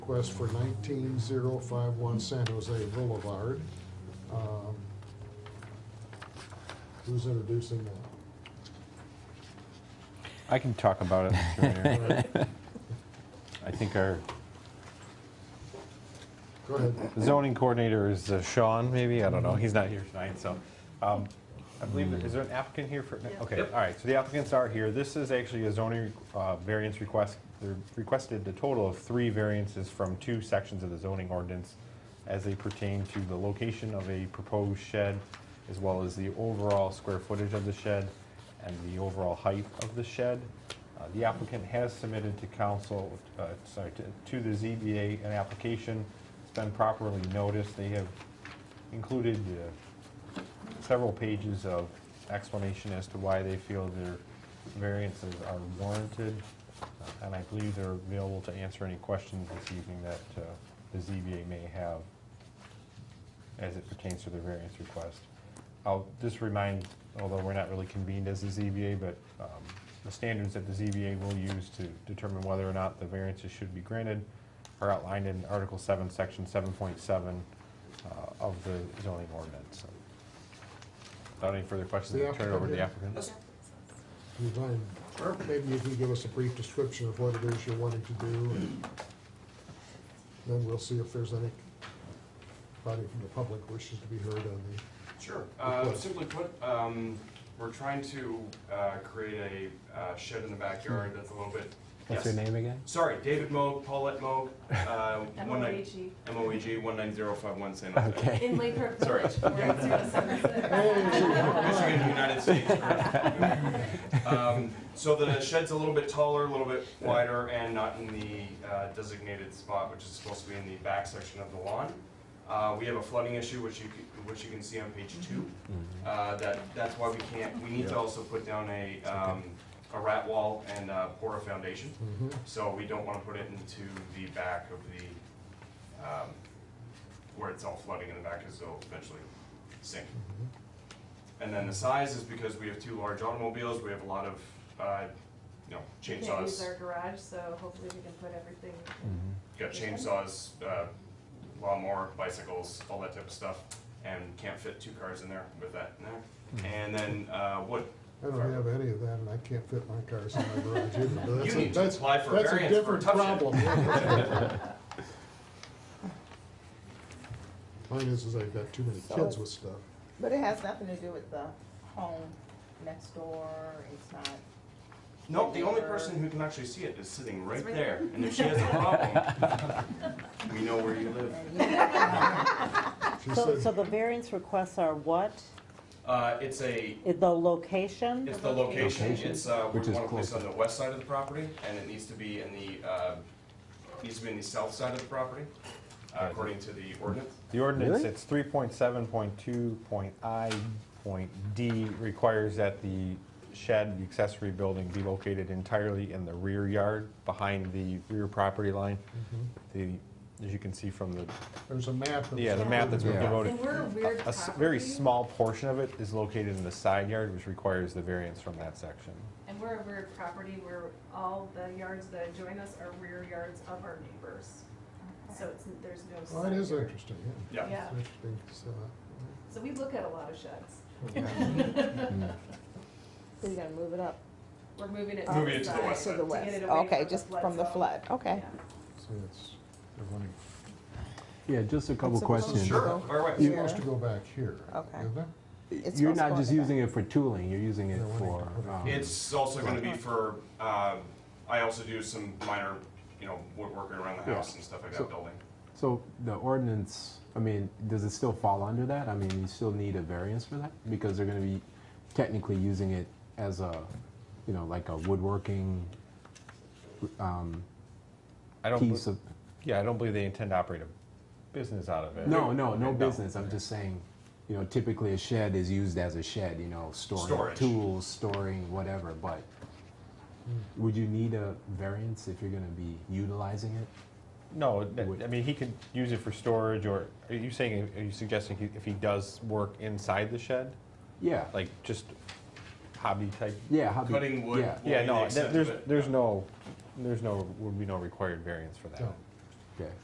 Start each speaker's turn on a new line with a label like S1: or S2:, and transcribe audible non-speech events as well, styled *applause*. S1: request for nineteen zero five one San Jose Boulevard. Um, Who's introducing that?
S2: I can talk about it. Mr. Mayor. I think our
S1: Go ahead.
S2: zoning coordinator is uh, Sean, maybe, I don't know, he's not here tonight, so. um, I believe, there- is there an applicant here for, okay, all right, so the applicants are here. This is actually a zoning uh, variance request. They're requested a total of three variances from two sections of the zoning ordinance as they pertain to the location of a proposed shed, as well as the overall square footage of the shed and the overall height of the shed. Uh, The applicant has submitted to council, uh, sorry, to- to the ZBA an application. It's been properly noticed. They have included uh, several pages of explanation as to why they feel their variances are warranted. Uh, And I believe they're available to answer any questions this evening that uh, the ZBA may have as it pertains to their variance request. I'll just remind, although we're not really convened as the ZBA, but um, the standards that the ZBA will use to determine whether or not the variances should be granted are outlined in Article 7, Section 7.7 uh, of the zoning ordinance. So, Without any further questions,
S1: The
S2: I'll turn it over to the applicant.
S1: You mind- or Maybe you can give us a brief description of what it is you're wanting to do. and Then we'll see if there's any, anybody from the public wishes to be heard on the,
S3: Sure. Uh,
S1: Request.
S3: simply put, um, we're trying to, uh, create a uh, shed in the backyard that's a little bit.
S4: What's
S3: yes.
S4: your name again?
S3: Sorry, David Moog, Paulette Moog, uh, one nine,
S5: MOAG
S3: M O E G, one nine zero five one San Jose.
S4: Okay.
S5: in Lake Park
S3: Sorry.
S5: Village, *laughs* 407.
S3: Michigan, United States.
S4: *laughs*
S3: Um, So the shed's a little bit taller, a little bit wider, and not in the uh, designated spot, which is supposed to be in the back section of the lawn. Uh, We have a flooding issue, which you, c- which you can see on page two.
S2: Mm-hmm.
S3: Uh, That, that's why we can't, we need to also put down a, um, a rat wall and uh, pour a foundation. So we don't want to put it into the back of the, um, where it's all flooding in the back, because it'll eventually sink. And then the size is because we have two large automobiles, we have a lot of, uh, you know,
S5: We can't use our
S3: chainsaws,
S5: garage, so hopefully we can put everything.
S3: got chainsaws, uh, lawnmower, bicycles, all that type of stuff, and can't fit two cars in there with that in there. And then, uh, wood.
S1: I don't have any of that and I can't fit my cars in my garage either. but that's a-
S3: You need to
S1: that's-
S3: apply for
S1: that's a
S3: variance for a
S1: different
S3: tough
S2: *laughs*
S3: shed.
S1: problem. Mine is, is I've got too many kids with stuff.
S6: But it has nothing to do with the home next door, it's not,
S3: No, the only person who can actually see it is sitting right there, and if she has a problem, *laughs* we know where you live.
S1: She
S7: So,
S1: said-
S7: so the variance requests are what?
S3: Uh, it's a,
S7: I- The location?
S3: It's the location,
S4: Location,
S3: it's, uh, we
S4: which is
S3: want to place on
S4: closer.
S3: the west side of the property, and it needs to be in the, uh, needs to be in the south side of the property, uh,
S2: Yeah.
S3: according to the ordinance.
S2: The ordinance,
S4: Really?
S2: it's three point seven point two point I point D requires that the shed, the accessory building be located entirely in the rear yard, behind the rear property line. The,
S4: Mm-hmm.
S2: as you can see from the,
S1: There's a map. that's-
S2: yeah, the map that's been
S4: Yeah.
S2: devoted.
S5: And we're a weird
S2: Mm-hmm. A s- very
S5: property,
S2: small portion of it is located in the side yard, which requires the variance from that section.
S5: and we're a weird property where all the yards that adjoin us are rear yards of our neighbors. So it's, there's no.
S1: Well, it
S5: side
S1: is
S5: yard.
S1: interesting, yeah.
S3: Yeah.
S5: Yeah,
S1: It's interesting, so.
S5: so we look at a lot of sheds.
S4: Mm-hmm.
S6: so you're gonna move it up
S5: We're moving it.
S3: Moving it to the
S5: side
S3: west
S6: to
S3: side.
S5: to
S6: the
S5: get
S6: west,
S5: it away
S6: okay, just from the
S5: zone.
S6: flood, okay.
S5: Yeah.
S1: So it's, they're wanting,
S4: Yeah, just a couple
S6: It's supposed to
S4: questions.
S3: Sure,
S6: go
S3: fire away.
S1: it's
S6: here.
S1: supposed to go back here.
S6: Okay.
S1: isn't it?
S6: It's
S4: You're
S6: supposed to
S4: not
S6: go
S4: just
S6: in the
S4: using it for tooling, you're using it
S1: No, we're
S4: for.
S1: not.
S4: um,
S3: It's also gonna be for, um, I also do some minor, you know, woodworking around the
S4: Yeah.
S3: house and stuff like
S4: So-
S3: that building.
S4: So the ordinance, I mean, does it still fall under that? I mean, you still need a variance for that? Because they're gonna be technically using it as a, you know, like a woodworking um,
S2: I don't,
S4: piece
S2: bel-
S4: of,
S2: yeah, I don't believe they intend to operate a business out of it.
S4: no, no, no
S2: No.
S4: business, I'm just saying, you know, typically a shed is used as a shed, you know, storing
S3: Storage.
S4: tools, storing whatever, but would you need a variance if you're gonna be utilizing it?
S2: No, th-
S4: Would-
S2: I mean, he could use it for storage, or are you saying, are you suggesting he- if he does work inside the shed?
S4: Yeah,
S2: Like, just hobby type?
S4: yeah. how do-
S3: Cutting wood.
S4: Yeah,
S3: Well,
S2: Yeah,
S3: in the
S2: no,
S3: extent
S2: th- there's,
S3: of it,
S2: there's
S3: yeah.
S2: no, there's no, would be no required variance for that.
S1: No.
S4: okay.